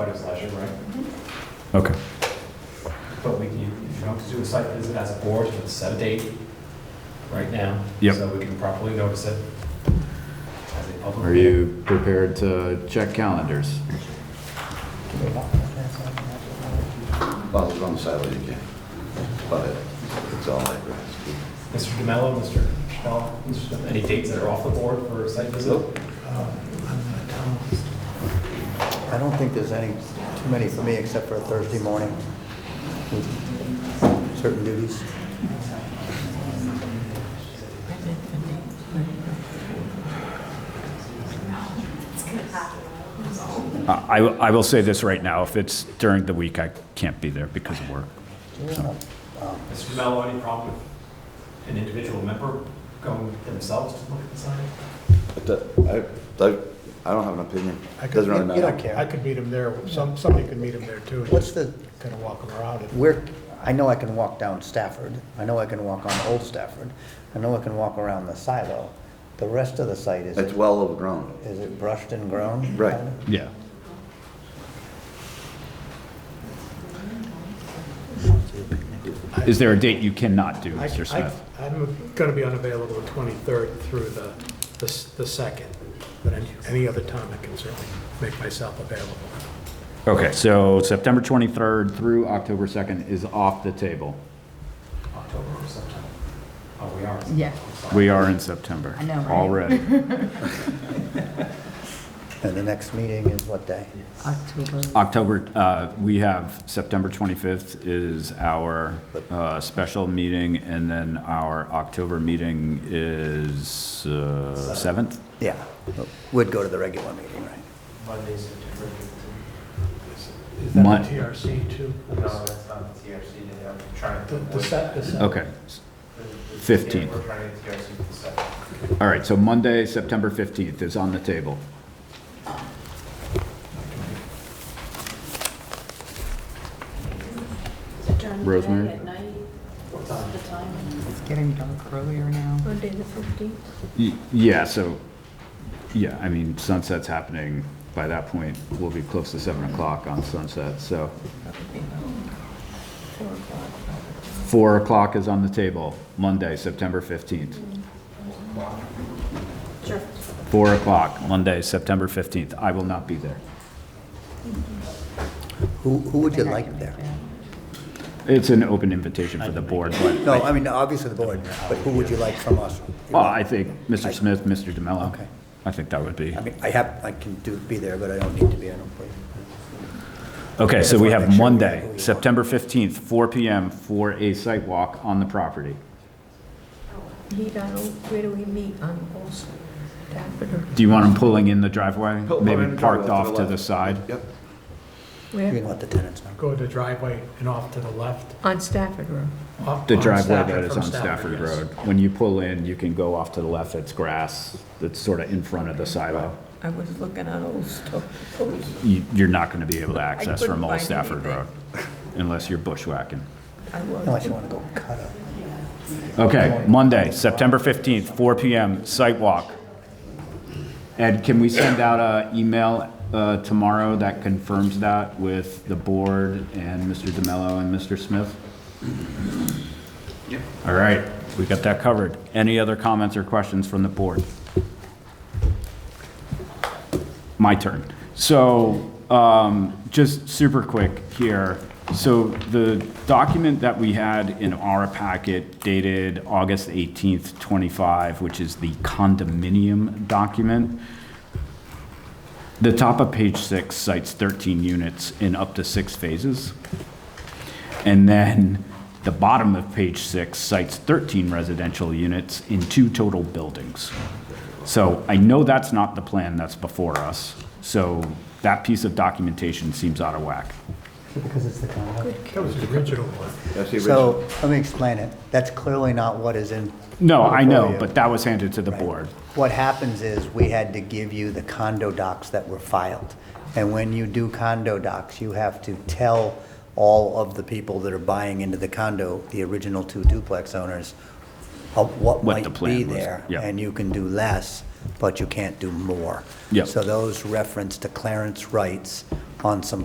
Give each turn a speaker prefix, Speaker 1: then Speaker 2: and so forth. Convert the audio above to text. Speaker 1: everybody's leisure, right?
Speaker 2: Okay.
Speaker 1: But we, you, you don't have to do a site visit as a board, but set a date right now.
Speaker 2: Yep.
Speaker 1: So we can properly notice it as a public.
Speaker 3: Are you prepared to check calendars?
Speaker 4: Well, it's on the side you can, but it- it's all like that.
Speaker 1: Mr. DeMello, Mr. Chappelle, Mr. Smith, any dates that are off the board for a site visit?
Speaker 5: I don't think there's any, too many for me, except for Thursday morning, with certain duties.
Speaker 2: Uh, I, will- I will say this right now, if it's during the week, I can't be there because of work.
Speaker 1: Mr. DeMello, any problem with an individual member going themselves to look at the sign?
Speaker 4: It do- I, I, I don't have an opinion.
Speaker 6: I could-
Speaker 4: Doesn't really
Speaker 5: You don't
Speaker 4: matter.
Speaker 6: I
Speaker 5: care.
Speaker 6: could meet him there, some, somebody could meet him there too.
Speaker 5: What's the-
Speaker 6: Kind of walk him around. and-
Speaker 5: Where, I know I can walk down Stafford, I know I can walk on Old Stafford, I know I can walk around the silo. The rest of the site, is
Speaker 4: It's
Speaker 5: it,
Speaker 4: well overgrown.
Speaker 5: is it brushed and grown?
Speaker 4: Right.
Speaker 2: Yeah. Is there a date you cannot do,
Speaker 6: I-
Speaker 2: Mr.
Speaker 6: I-
Speaker 2: Smith?
Speaker 6: I'm going to be unavailable the 23rd through the, the s- the 2nd, but any- any other time I can certainly make myself available.
Speaker 2: Okay, so September 23rd,
Speaker 3: Through October 2nd is off the table.
Speaker 1: October or September? Oh, we are.
Speaker 7: Yeah.
Speaker 2: we are in September.
Speaker 7: I know, right?
Speaker 2: Already.
Speaker 5: And the next meeting is what day?
Speaker 7: October.
Speaker 3: October, uh, we have September 25th is our uh, special meeting, and then our October meeting is uh, 7th?
Speaker 5: Yeah, would go to the regular meeting, right?
Speaker 1: Monday, September fifteenth.
Speaker 6: Is that
Speaker 3: Mon-
Speaker 6: the TRC too?
Speaker 1: that's not the TRC, I'm trying
Speaker 6: The- the se- the se-
Speaker 3: Okay. 15th.
Speaker 1: We're trying to TRC for the second.
Speaker 3: All right, so Monday, September 15th is on the table. Rosemary?
Speaker 8: At night,
Speaker 1: What time?
Speaker 8: the time,
Speaker 7: It's getting dark earlier now.
Speaker 8: Monday the fifteenth.
Speaker 3: Y- Yeah, so, yeah, I mean, sunset's happening, by that point, we'll be close to 7 o'clock on sunset, so. 4 o'clock is on the table, Monday, September 15th.
Speaker 8: Sure.
Speaker 3: 4 o'clock, Monday, September 15th. I will not be there.
Speaker 5: Who, who would you
Speaker 7: I
Speaker 5: like
Speaker 7: can
Speaker 5: there?
Speaker 7: make that.
Speaker 3: It's an open invitation for the board, but,
Speaker 5: No, I mean, obviously the board, but who would you like from us?
Speaker 3: well, I think Mr. Smith, Mr. DeMello.
Speaker 5: Okay.
Speaker 3: I think that would be.
Speaker 5: I mean, I have, I can do, be there, but I don't need to be, I don't believe.
Speaker 3: Okay, so we have
Speaker 5: Just wanna make sure we know
Speaker 3: Monday,
Speaker 5: who we are.
Speaker 3: September 15th, 4 PM for a site walk on the property.
Speaker 8: Meet on, Old- where do we meet on Old Stafford? or
Speaker 3: Do you want them pulling in the driveway?
Speaker 4: Pull- pull in
Speaker 3: Maybe
Speaker 4: the
Speaker 3: parked
Speaker 4: driveway to
Speaker 3: off
Speaker 4: the
Speaker 3: to
Speaker 4: left.
Speaker 3: the side?
Speaker 4: Yep.
Speaker 5: You
Speaker 8: Where?
Speaker 5: can let the tenants know.
Speaker 6: Go to the driveway and off to the left.
Speaker 8: On Stafford Road.
Speaker 6: off-
Speaker 3: The
Speaker 6: on
Speaker 3: driveway
Speaker 6: Stafford
Speaker 3: that is
Speaker 6: from
Speaker 3: on Stafford
Speaker 6: yes.
Speaker 3: Road. When you pull in, you can go off to the left, it's grass, that's sort of in front of the silo.
Speaker 8: I was looking on Old Stafford.
Speaker 3: You- You're not going to be able to access
Speaker 8: couldn't
Speaker 3: from Old
Speaker 8: find
Speaker 3: Stafford
Speaker 8: anything.
Speaker 3: Road unless you're bushwhacking.
Speaker 8: I
Speaker 5: Unless
Speaker 8: was.
Speaker 5: you want to go cut up.
Speaker 3: Okay, Monday, September 15th, 4 PM, site walk. Ed, can we send out an email uh, tomorrow that confirms that with the board and Mr. DeMello and Mr. Smith? All right, we got that covered. Any other comments or questions from the board? my turn. So, um, just super quick here. So the document that we had in our packet dated August 18th, 25, which is the condominium document, the top of page six cites 13 units in up to six phases. And then the bottom of page six cites 13 residential units in two total buildings. So I know that's not the plan that's before us, so that piece of documentation seems out of whack.
Speaker 5: Because it's the condo.
Speaker 6: That was the original one.
Speaker 4: That's the
Speaker 5: So,
Speaker 4: original.
Speaker 5: let me explain it. That's clearly not what is in.
Speaker 3: No, I know,
Speaker 5: before you.
Speaker 3: but that was handed to the board.
Speaker 5: What happens is, we had to give you the condo docs that were filed. And when you do condo docs, you have to tell all of the people that are buying into the condo, the original two duplex owners, of what
Speaker 3: What the
Speaker 5: might be
Speaker 3: plan was,
Speaker 5: there.
Speaker 3: yeah.
Speaker 5: And you can do less, but you can't do more.
Speaker 3: Yep.
Speaker 5: So those reference to Clarence Wright's on some